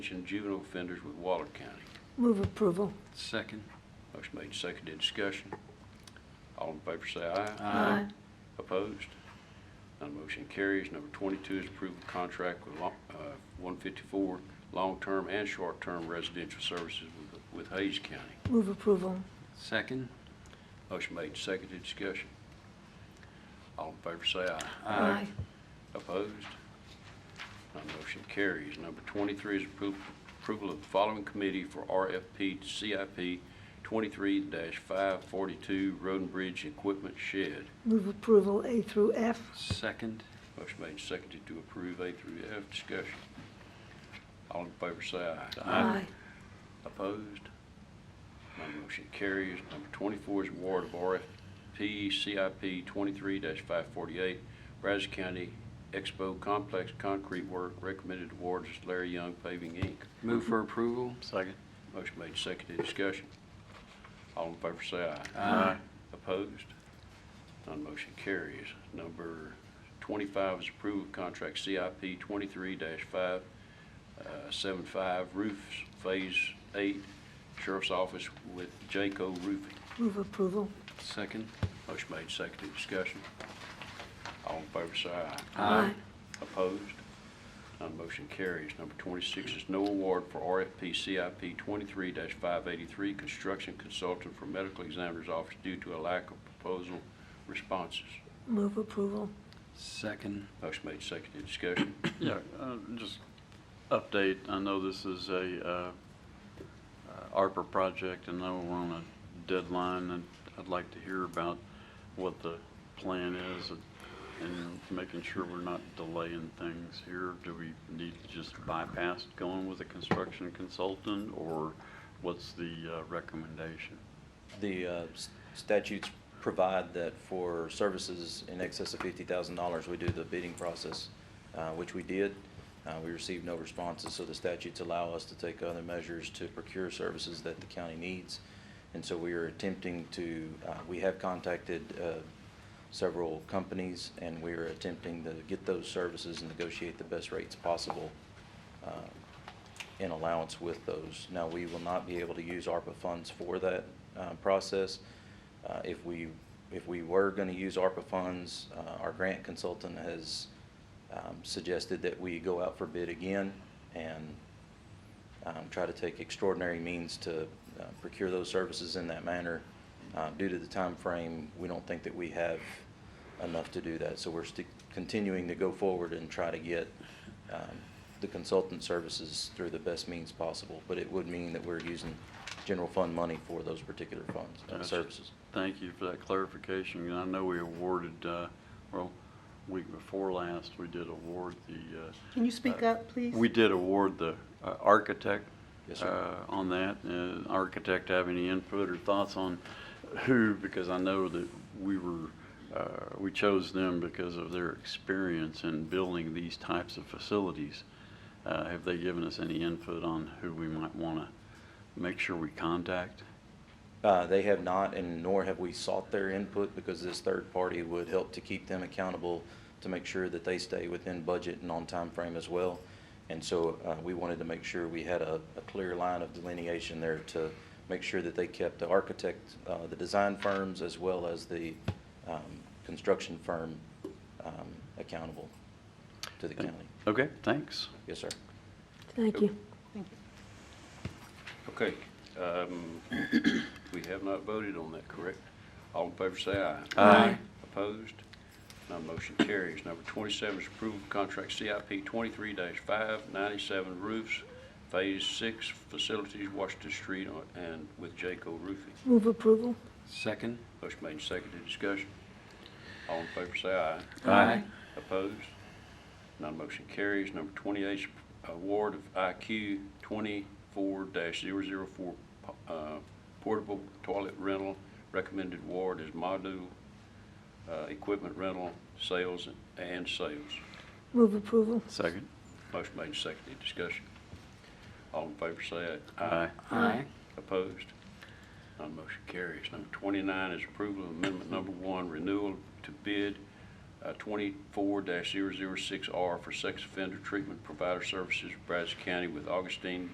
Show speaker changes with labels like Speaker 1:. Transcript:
Speaker 1: and juvenile offenders with Waller County.
Speaker 2: Move approval.
Speaker 3: Second.
Speaker 1: Motion made, seconded, discussion. All in favor say aye.
Speaker 3: Aye.
Speaker 1: Opposed? None motion carries. Number 22 is approval of contract with lo- uh, 154 long-term and short-term residential services with- with Hayes County.
Speaker 2: Move approval.
Speaker 3: Second.
Speaker 1: Motion made, seconded, discussion. All in favor say aye.
Speaker 3: Aye.
Speaker 1: Opposed? None motion carries. Number 23 is appro- approval of the following committee for RFP to CIP 23-542 Road and Bridge Equipment Shed.
Speaker 2: Move approval A through F.
Speaker 3: Second.
Speaker 1: Motion made, and seconded to approve A through F. Discussion. All in favor say aye. Opposed? None motion carries. Number 24 is award of RFP CIP 23-548, Brazos County Expo Complex Concrete Work. Recommended awards is Larry Young Paving, Inc.
Speaker 3: Move for approval. Second.
Speaker 1: Motion made, seconded, discussion. All in favor say aye.
Speaker 3: Aye.
Speaker 1: Opposed? None motion carries. Number 25 is approval of contract CIP uh, 23-575 roofs, Phase 8, Sheriff's Office with Jayco Roofing.
Speaker 2: Move approval.
Speaker 3: Second.
Speaker 1: Motion made, seconded, discussion. All in favor, say aye.
Speaker 3: Aye.
Speaker 1: Opposed? None motion carries. Number 26 is no award for RFP CIP 23-583, construction consultant for medical examiner's office due to a lack of proposal responses.
Speaker 2: Move approval.
Speaker 3: Second.
Speaker 1: Motion made, seconded, discussion.
Speaker 4: Yeah, uh, just update, I know this is a uh, uh, ARPA project, and I know we're on a deadline, and I'd like to hear about what the plan is and- and making sure we're not delaying things here. Do we need to just bypass going with a construction consultant, or what's the uh, recommendation?
Speaker 5: The uh, s- statutes provide that for services in excess of $50,000, we do the bidding process, uh, which we did. Uh, We received no responses, so the statutes allow us to take other measures to procure services that the county needs. And so we are attempting to, uh, we have contacted uh, several companies, and we are attempting to get those services and negotiate the best rates possible uh, in allowance with those. Now, we will not be able to use ARPA funds for that uh, process. Uh, If we, if we were going to use ARPA funds, uh, our grant consultant has um, suggested that we go out for bid again and um, try to take extraordinary means to uh, procure those services in that manner. Uh, Due to the time frame, we don't think that we have enough to do that. So we're stick- continuing to go forward and try to get um, the consultant services through the best means possible. But it would mean that we're using general fund money for those particular funds and
Speaker 4: Gotcha.
Speaker 5: services.
Speaker 4: Thank you for that clarification. And I know we awarded, uh, well, week before last, we did award the. uh,
Speaker 6: Can you speak
Speaker 4: uh,
Speaker 6: up, please?
Speaker 4: We did award the uh, architect.
Speaker 5: Yes, sir.
Speaker 4: uh, On that. Uh, Architect have any input or thoughts on who, because I know that we were, uh, we chose them because of their experience in building these types of facilities. Uh, Have they given us any input on who we might want to make sure we contact?
Speaker 5: Uh, They have not, and nor have we sought their input, because this third party would help to keep them accountable to make sure that they stay within budget and on time frame as well. And so uh, we wanted to make sure we had a a clear line of delineation there to make sure that they kept the architect, uh, the design firms, as well as the um, construction firm um, accountable to the county.
Speaker 4: Okay, thanks.
Speaker 5: Yes, sir.
Speaker 2: Thank you.
Speaker 6: Thank you.
Speaker 1: Okay, um, we have not voted on that, correct? All in favor say aye.
Speaker 2: Aye.
Speaker 1: Opposed? None motion carries. Number 27 is approval of contract CIP 23-597 roofs, Phase 6 facilities, Washington Street, on- and with Jayco Roofing.
Speaker 2: Move approval.
Speaker 3: Second.
Speaker 1: Motion made and seconded, discussion. All in favor say aye.
Speaker 3: Aye.
Speaker 1: Opposed? None motion carries. Number 28 is award of IQ 24-004 uh, portable toilet rental. Recommended award is module uh, equipment rental, sales, and sales.
Speaker 2: Move approval.
Speaker 4: Second.
Speaker 1: Motion made and seconded, discussion. All in favor say
Speaker 5: Uh,
Speaker 4: Aye.
Speaker 3: Aye.
Speaker 1: Opposed? None motion carries. Number 29 is approval of amendment number one, renewal to bid uh, twenty-four 6 R for sex offender treatment provider services, Brazos County with Augustine